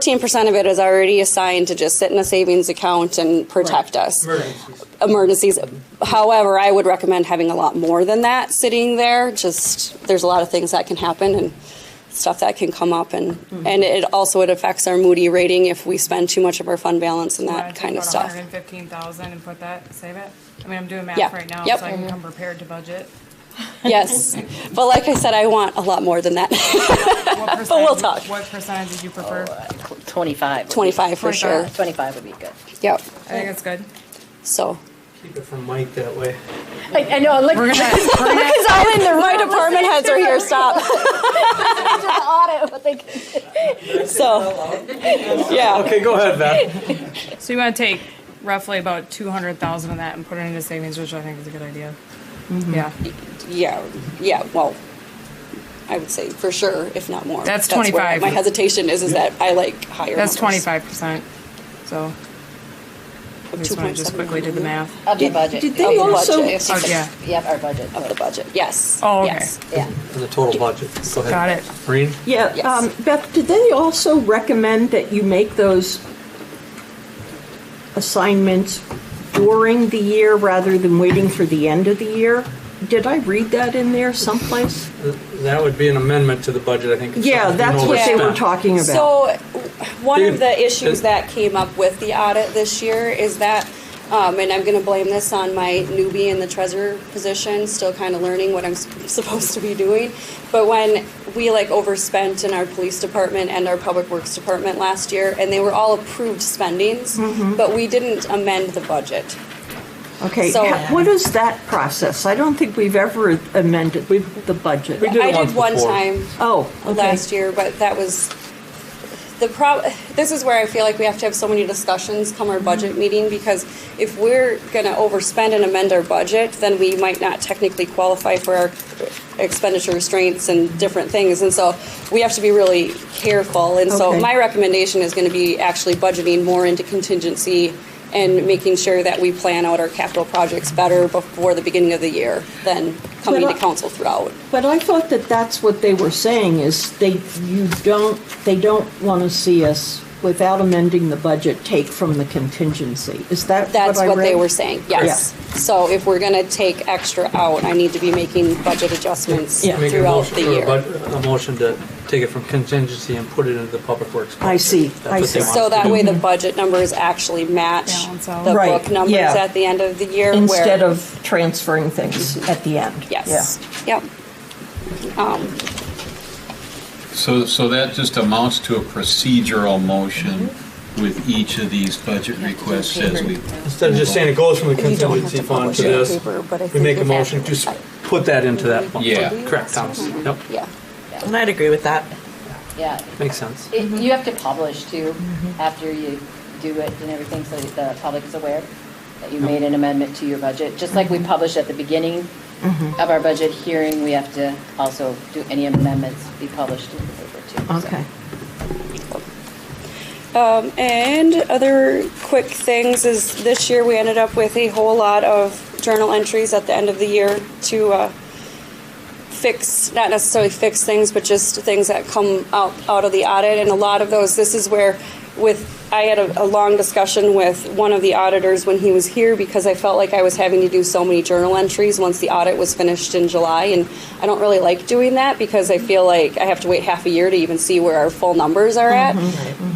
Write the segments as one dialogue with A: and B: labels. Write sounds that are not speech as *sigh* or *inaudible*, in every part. A: 13% of it is already assigned to just sit in a savings account and protect us. Emergencies. However, I would recommend having a lot more than that sitting there. Just, there's a lot of things that can happen and stuff that can come up and, and it also, it affects our Moody rating if we spend too much of our fund balance and that kind of
B: One
A: stuff.
B: hundred and fifteen thousand and put that, save it. I mean, I'm doing
A: Yeah.
B: math right now, so
A: Yep.
B: I can come prepared
A: *laughs*
B: to budget.
A: Yes. But like I said, I want a lot more than that. *laughs*
B: But
A: we'll talk. Oh,
B: What percentage did you prefer? I
C: 25.
A: 25 for sure.
C: 25 would be good.
A: Yep.
B: think that's good.
A: So.
D: Keep it from Mike that way.
C: I, I know, look,
B: We're gonna,
A: *laughs*
B: we're gonna,
A: Because all in Oh, the, my department heads are here, stop. So, yeah,
D: Okay, go ahead,
E: *laughs*
D: Beth.
B: so you wanna take roughly about two hundred thousand of that and put it into savings, which I think is a good idea. Yeah,
A: yeah, yeah, well, I would say for sure, if not more.
B: That's
A: where
B: 25.
A: My hesitation is, is that I like higher
B: that's
A: numbers.
B: twenty-five percent, so. I just wanna just
A: 2.7
B: quickly did the math.
C: of the budget.
E: Did
A: Of
E: they
A: the
E: also,
A: budget.
B: Oh, yeah,
C: Yep, our budget.
A: Of the budget, yes.
B: Oh, okay.
A: yes.
C: Yeah.
D: And the total budget. Go ahead.
B: Got it.
D: Maureen?
E: yeah,
A: Yes.
E: um, Beth, did they also recommend that you make those assignments during the year rather than waiting for the end of the year? Did I read that in there someplace?
D: That would be an amendment to the budget, I think. if
E: Yeah,
D: something's
E: that's
D: been
E: what they were
D: overspent.
E: talking about.
A: So, one of the issues
D: Dude.
A: that came up with the audit this year is that, um, and I'm gonna blame this on my newbie in the treasurer position, still kind of learning what I'm s- supposed to be doing. But when we like overspent in our police department and our public works department last year, and they were all approved spendings,
D: Mm-hmm.
A: but we didn't amend the budget.
E: Okay,
A: So-
E: ha- what is that process? I don't think we've ever amended the budget.
D: We did
A: I
D: it
A: did
D: once
A: one
D: before.
A: time.
E: Oh, okay.
A: last year, but that was the prob. This is where I feel like we have to have so many discussions come our
E: Mm-hmm.
A: budget meeting because if we're going to overspend and amend our budget, then we might not technically qualify for our expenditure restraints and different things, and so we have to be really careful. And so
E: Okay.
A: my recommendation is going to be actually budgeting more into contingency. And making sure that we plan out our capital projects better before the beginning of the year than coming
E: But
A: to
E: I-
A: council throughout.
E: But I thought that that's what they were saying is they, you don't, they don't want to see us without amending the budget, take from the contingency. Is that what I read?
A: That's what they were saying, yes. So if we're gonna take extra out, I need to be making budget adjustments
E: Yeah.
D: Make a
A: throughout
D: motion
A: the
D: for a
A: year.
D: bud- A motion to take it from contingency and put it into the public works.
E: I see,
D: budget.
E: I
D: That's
E: see.
D: what they
A: So
D: want.
A: that way the budget numbers actually match
B: Balance out.
A: the
E: Mm-hmm. Right,
A: book numbers
E: yeah.
A: at the end of the year. where-
E: Instead of transferring things at the end.
A: Mm-hmm. Yes, yep. Um,
F: So, so that just amounts to a procedural motion with each of these budget requests as we.
D: Instead of just saying it goes from the contingency fund to this, we make a motion to s- put that into that fund.
F: Yeah.
D: Correct, Thomas. Yep,
A: yeah,
G: And I'd agree with that.
C: Yeah.
D: makes sense.
C: It- You have to publish too,
E: Mm-hmm.
C: after you do it and everything, so that the public is aware that you made an amendment to your budget. Just like we
E: Mm-hmm.
C: publish at the beginning of our budget hearing, we have to also do any amendments be published in the paper too. so.
E: Okay.
A: Um, and other quick things is this year we ended up with a whole lot of journal entries at the end of the year to uh, fix, not necessarily fix things, but just things that come out, out of the audit. And a lot of those, this is where with, I had a, a long discussion with one of the auditors when he was here because I felt like I was having to do so many journal entries once the audit was finished in July. And I don't really like doing that because I feel like I have to wait half a year to even see where our full numbers are at.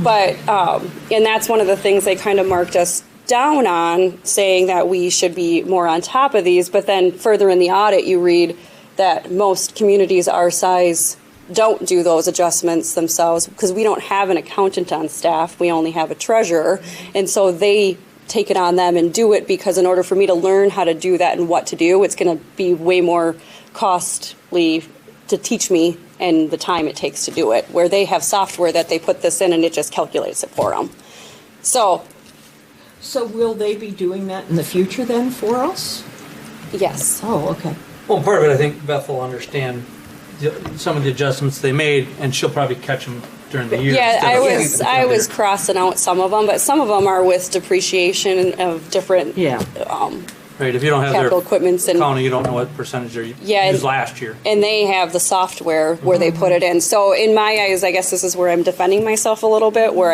A: But, um, and that's one of the things they kind of marked us down on, saying that we should be more on top of these. But then further in the audit, you read, that most communities our size don't do those adjustments themselves because we don't have an accountant on staff. We only have a treasurer. And so they take it on them and do it because in order for me to learn how to do that and what to do, it's going to be way more costly to teach me and the time it takes to do it, where they have software that they put this in and it just calculates it for them. So,
E: So will they be doing that in the future then for us?
A: yes.
E: Oh, okay.
D: Well, part of it, I think Beth will understand the- some of the adjustments they made, and she'll probably catch them during the year.
A: Yeah,
D: instead
A: I
D: of-
A: was I was crossing out some of them, but some of them are with depreciation of different.
E: Yeah.
A: Um,
D: Right, if you don't have their
A: Capital equipments and-
D: county, you don't know what percentage they
A: Yeah, and-
D: used last year.
A: and they have the software where they put it in. So in my eyes, I guess this is where I'm defending myself a little bit, where